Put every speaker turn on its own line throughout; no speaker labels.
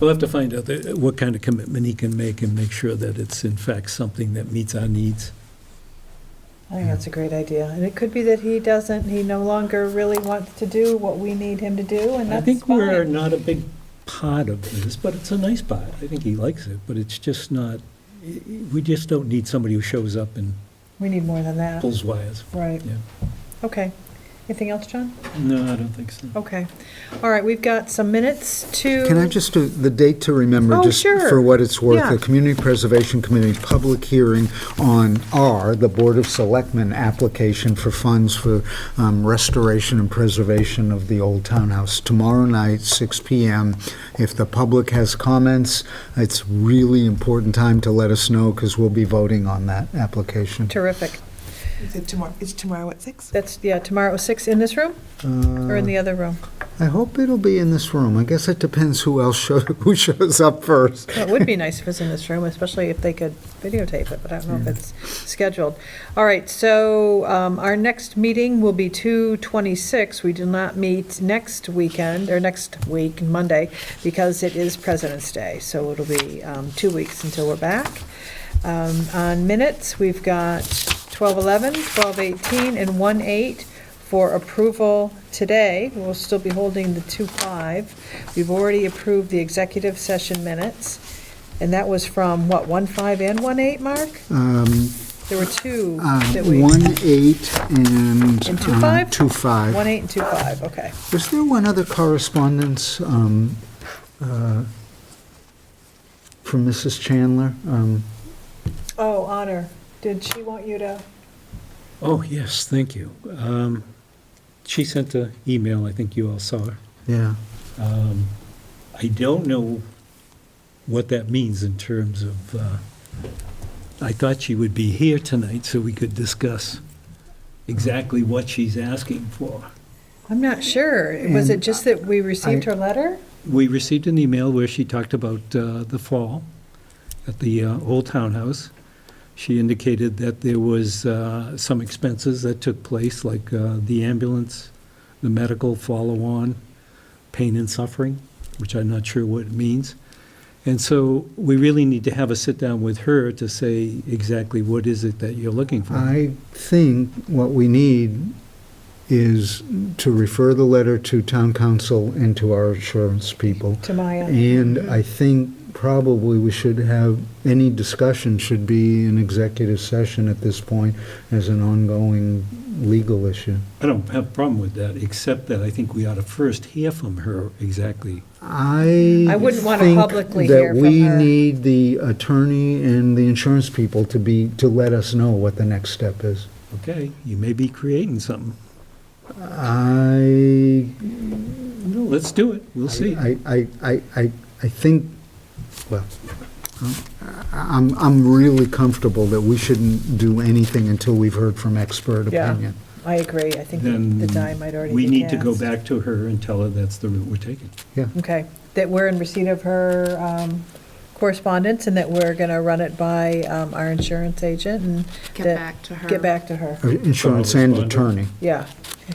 We'll have to find out the- what kind of commitment he can make and make sure that it's in fact something that meets our needs.
I think that's a great idea. And it could be that he doesn't, he no longer really wants to do what we need him to do, and
I
that's
think we're
fine.
not a big part of this, but it's a nice part. I think he likes it, but it's just not, we just don't need somebody who shows up and
We need more than that,
pulls wires.
right?
Yeah.
Okay. Anything else, John?
No, I don't think so.
Okay. All right, we've got some minutes to.
Can I just do the date to remember,
Oh,
just
sure.
for what it's worth?
Yeah.
The Community Preservation Committee public hearing on R, the Board of Selectmen application for funds for um, restoration and preservation of the old townhouse, tomorrow night, 6 PM. If the public has comments, it's really important time to let us know, because we'll be voting on that application.
Terrific.
Is it tomorrow, it's tomorrow at six?
That's, yeah, tomorrow at six in this room or in the other room?
Uh, I hope it'll be in this room. I guess it depends who else, show- who shows up first.
Well, it would be nice if it's in this room, especially if they could videotape it, but I don't know if it's scheduled. All right, so um, our next meeting will be 2/26. We do not meet next weekend, or next week, Monday, because it is President's Day, so it'll be um, two weeks until we're back. Um, On minutes, we've got 12:11, 12:18, and 1:08 for approval today. We'll still be holding the 2-5. We've already approved the executive session minutes, and that was from, what, 1-5 and 1-8, Mark?
Uh,
Um,
There were two that we,
1-8 Uh, and...
And two
uh,
five?
two five.
1-8 and 2-5, okay.
Was there one other correspondence um, uh, from Mrs. Chandler? Um,
Oh, Honor, did she want you to,
Oh, yes, thank you. Um, She sent an email, I think you all saw her.
Yeah,
Um, I don't know what that means in terms of, uh, I thought she would be here tonight so we could discuss exactly what she's asking for.
I'm not sure. Was it
And
just that we received her letter?
We received an email where she talked about uh, the fall at the uh, Old Townhouse. She indicated that there was uh, some expenses that took place, like uh, the ambulance, the medical follow-on, pain and suffering, which I'm not sure what it means. And so we really need to have a sit-down with her to say exactly what is it that you're looking for.
I think what we need is to refer the letter to town council and to our insurance people.
To Maya?
And I think probably we should have, any discussion should be an executive session at this point as an ongoing legal issue.
I don't have a problem with that, except that I think we ought to first hear from her exactly
I
I wouldn't wanna
think
publicly hear from
That we
her.
need the attorney and the insurance people to be, to let us know what the next step is.
Okay, you may be creating something.
I,
No, let's do it. We'll see.
I, I, I, I I think, well, I'm, I'm really comfortable that we shouldn't do anything until we've heard from expert
Yeah.
opinion.
I agree. I think
Then
the die might already be
We
cast.
need to go back to her and tell her that's the route we're taking.
Okay, that we're in receipt of her um, correspondence and that we're going to run it by um, our insurance agent and
Get
that-
back to her.
get back to her.
Insurance and
Respondent.
attorney,
Yeah,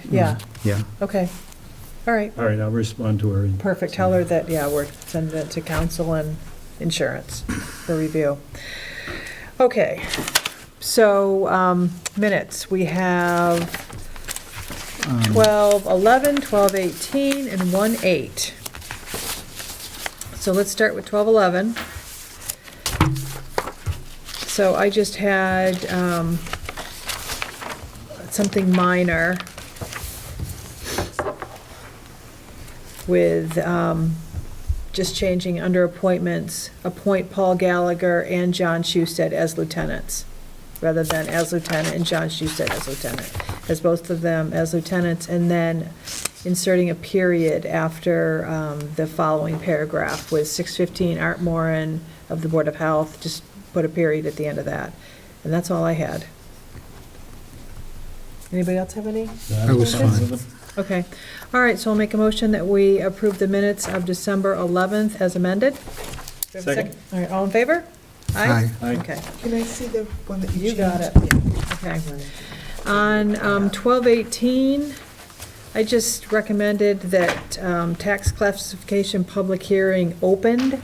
yeah,
yeah.
okay. All right,
All right, I'll respond to her. and-
perfect. Tell her that, yeah, we're sending it to council and insurance for review. Okay, so um, minutes, we have 12, 11, 12, 18, and 1, 8. So let's start with 12, 11. So I just had um, something minor with um, just changing under appointments, appoint Paul Gallagher and John Schusted as lieutenants, rather than as lieutenant and John Schusted as lieutenant, as both of them as lieutenants, and then inserting a period after um, the following paragraph with 615 Art Moran of the Board of Health, just put a period at the end of that. And that's all I had. Anybody else have any?
I was fine.
Okay, all right, so I'll make a motion that we approve the minutes of December 11th as amended. Do we have a
Second.
All right, all in favor?
Aye.
Okay,
Can I see the one that you
You got
changed?
okay. On um, 12:18, I just recommended that um, tax classification public hearing opened